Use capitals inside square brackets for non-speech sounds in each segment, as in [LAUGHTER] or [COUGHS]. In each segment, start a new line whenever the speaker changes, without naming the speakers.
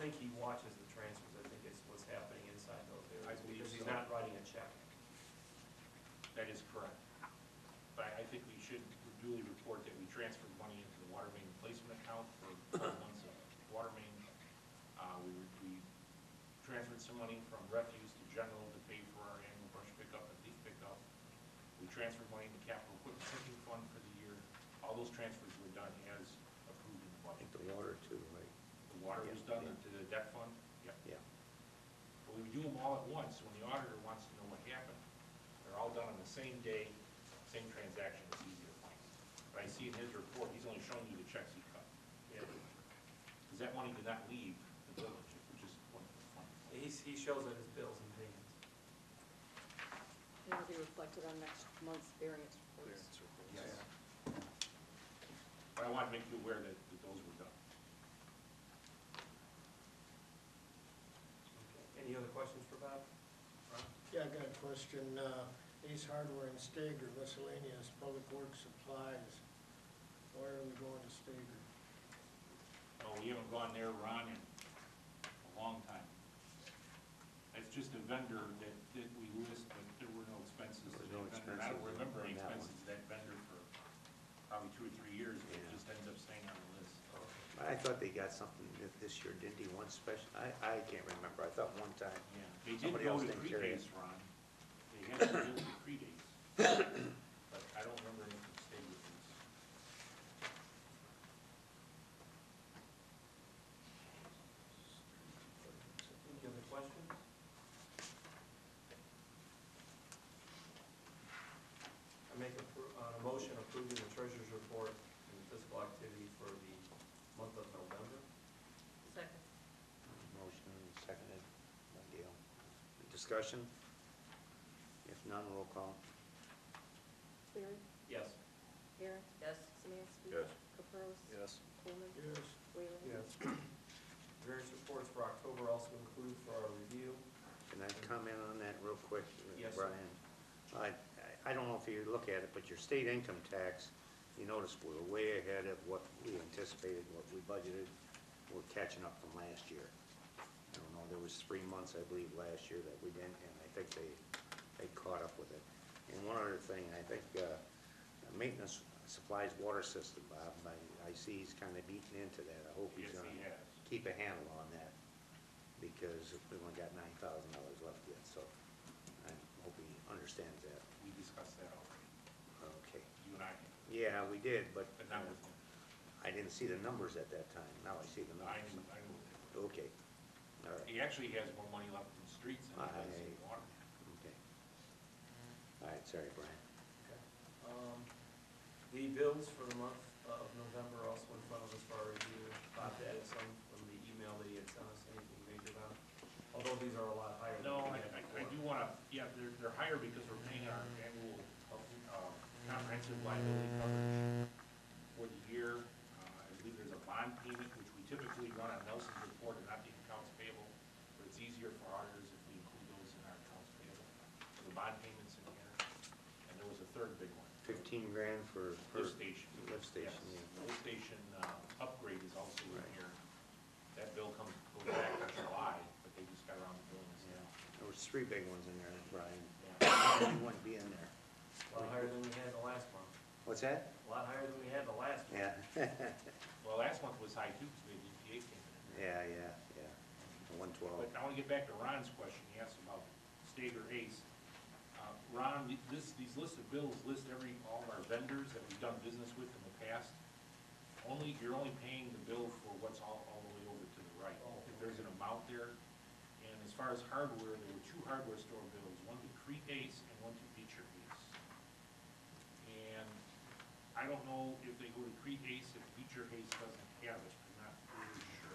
think he watches the transfers, I think it's what's happening inside those
I
areas,
believe
because he's
so.
not writing a check.
That is correct. But I think we should duly report that we transferred money into the water main replacement account for twelve months of water main. Uh, we, we transferred some money from refuse to general to pay for our annual brush pickup and leaf pickup. We transferred money into capital equipment sinking fund for the year. All those transfers were done as approved in the
I
budget.
think the water too, right?
The water was done into the debt fund, yep.
Yeah.
But when we do them all at once, when the auditor wants to know what happened, they're all done on the same day, same transaction, it's easy to find. But I see in his report, he's only showing you the checks he cut. Because that money did not leave the village, which is one of the funny.
He's, he shows it as bills and payments.
And it'll be reflected on next month's variance reports.
Yes. But I want to make you aware that, that those were done.
Any other questions for Bob? Ron?
Yeah, I got a question. Uh, Ace Hardware and Stager miscellaneous public works supplies. Why are we going to Stager?
Oh, we haven't gone there, Ron, in a long time. It's just a vendor that, that we list, but there were no expenses to that
There were no
vendor. I don't
expenses
remember any
on that one.
expenses to that vendor for probably two or three years, but it just ends up staying on the list.
I thought they got something that this year, didn't he, one special, I, I can't remember, I thought one time.
Yeah, they did
Somebody
go
else
to
didn't carry it.
predates, Ron. They had to go to predates. But I don't remember anything from state with these.
Any other questions? I make a, pro- uh, a motion approving the treasurer's report and the fiscal activity for the month of November.
Second.
Motion seconded by Dale. Discussion? If none, roll call.
Cleary?
Yes.
Aaron? Yes. Semansky? Yes. Caprows?
Yes.
Coleman?
Yes,
Whalen?
Various reports for October also include for our review.
Can I comment on that real quick?
Yes, sir.
Brian? I, I don't know if you look at it, but your state income tax, you notice we're way ahead of what we anticipated, what we budgeted. We're catching up from last year. I don't know, there was three months, I believe, last year that we didn't, and I think they, they caught up with it. And one other thing, I think, uh, maintenance supplies water system, Bob, I, I see he's kind of beaten into that. I hope he's
Yes,
gonna
he has.
keep a handle on that because we only got nine thousand dollars left yet, so I hope he understands that.
We discussed that already,
Okay.
you and I, did,
Yeah, we did, but
but not with him.
I didn't see the numbers at that time. Now I see the
I knew,
numbers.
I knew what they were.
Okay. All right.
He actually has more money left in streets than he does in
I-
water.
Okay. All right, sorry, Brian.
Um, The bills for the month of November are also in front of us for our review. Bob added some from the email that he had sent us, anything major about? Although these are a lot higher than
No,
we
I,
had
I- I
before.
do wanna, yeah, they're, they're higher because we're paying our annual, uh, comprehensive liability coverage for the year. Uh, I believe there's a bond payment, which we typically run on Nelson's report and not the accounts payable, but it's easier for auditors if we include those in our accounts payable. So The bond payments in here, and there was a third big one.
Fifteen grand for. for-
Lift station.
Lift station,
Yes.
yeah.
The Lift station uh, upgrade is also in
Right.
here. That bill comes, goes back to July, but they just got around to doing this now.
There was three big ones in there, Brian.
Yeah.
[COUGHS] You wouldn't be in there.
A lot higher than we had the last month.
What's that?
A lot higher than we had the last month.
Yeah, [LAUGHS] yeah,
Well, last month was high too, because the EPA came in.
yeah, yeah. One twelve.
But I want to get back to Ron's question, he asked about Stager Ace. Uh, Ron, this, these lists of bills list every, all of our vendors that we've done business with in the past. Only, you're only paying the bill for what's all, all the way over to the right. If there's an amount there, and as far as hardware, there were two hardware store bills, one to Crete Ace and one to Beecher Ace. And I don't know if they go to Crete Ace, if Beecher Ace doesn't have it, I'm not really sure.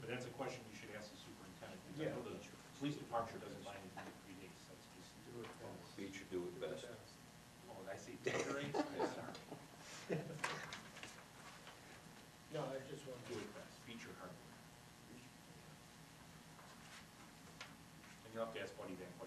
But that's a question you should ask the superintendent, because I know the police department doesn't mind if they Crete Ace, that's just.
Beecher do it best.
Oh, did I say Beecher Ace? I'm sorry.
No, I just wanted
Do it best, Beecher hardware. And you'll have to ask Buddy that